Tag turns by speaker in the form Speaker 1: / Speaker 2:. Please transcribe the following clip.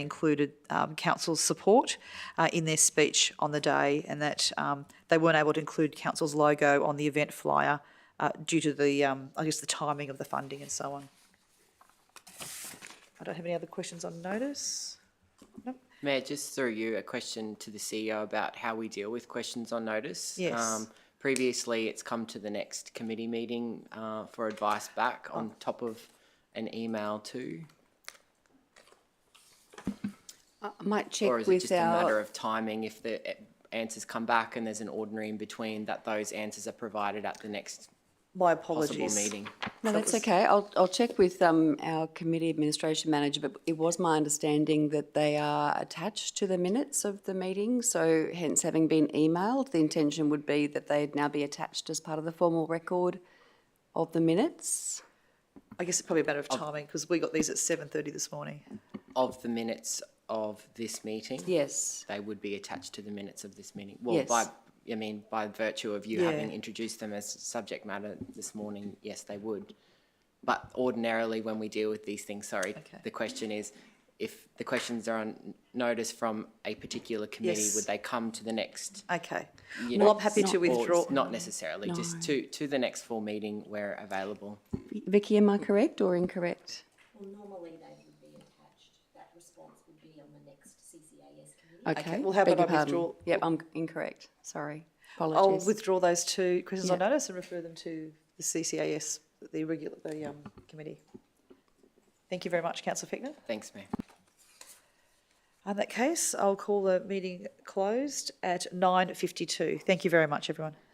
Speaker 1: included um, council's support uh, in their speech on the day, and that um, they weren't able to include council's logo on the event flyer uh, due to the, um, I guess, the timing of the funding and so on. I don't have any other questions on notice.
Speaker 2: Mayor, just through you, a question to the CEO about how we deal with questions on notice. Um,
Speaker 1: Yes.
Speaker 2: Previously, it's come to the next committee meeting uh, for advice back on top of an email too?
Speaker 3: I might
Speaker 2: Or
Speaker 3: check
Speaker 2: is it
Speaker 3: with
Speaker 2: just a matter
Speaker 3: our,
Speaker 2: of timing if the eh, answers come back and there's an ordinary in between that those answers are provided at the next
Speaker 1: My
Speaker 2: possible
Speaker 1: apologies.
Speaker 2: meeting?
Speaker 3: no, that's okay. I'll, I'll check with um, our committee administration manager, but it was my understanding that they are attached to the minutes of the meeting. So hence having been emailed, the intention would be that they'd now be attached as part of the formal record of the minutes.
Speaker 1: I guess it's probably a matter of
Speaker 2: Oh.
Speaker 1: timing because we got these at 7.30 this morning.
Speaker 2: Of the minutes of this meeting?
Speaker 3: Yes.
Speaker 2: They would be attached to the minutes of this meeting? Well, by, I
Speaker 3: Yes.
Speaker 2: mean, by virtue of you
Speaker 1: Yeah.
Speaker 2: having introduced them as subject matter this morning, yes, they would. But ordinarily, when we deal with these things, sorry, the question is, if the questions are on notice from a particular committee,
Speaker 1: Yes.
Speaker 2: would they come to the next?
Speaker 1: Okay.
Speaker 2: you
Speaker 1: Well,
Speaker 2: know,
Speaker 1: I'm happy to
Speaker 2: or it's
Speaker 1: withdraw.
Speaker 2: Not necessarily, just to, to the next full meeting where available.
Speaker 3: Vicky, am I correct or incorrect?
Speaker 4: Well, normally they would be attached, that response would be on the next CCAS committee.
Speaker 3: Okay.
Speaker 1: well, how
Speaker 3: beg
Speaker 1: about I
Speaker 3: your pardon.
Speaker 1: withdraw-
Speaker 3: Yep, I'm incorrect. Sorry.
Speaker 1: I'll
Speaker 3: Apologies.
Speaker 1: withdraw those two questions on
Speaker 3: Yeah.
Speaker 1: notice and refer them to the CCAS, the regular, the um, committee. Thank you very much, councillor Fickner.
Speaker 2: Thanks, Mayor.
Speaker 1: In that case, I'll call the meeting closed at 9:52. Thank you very much, everyone.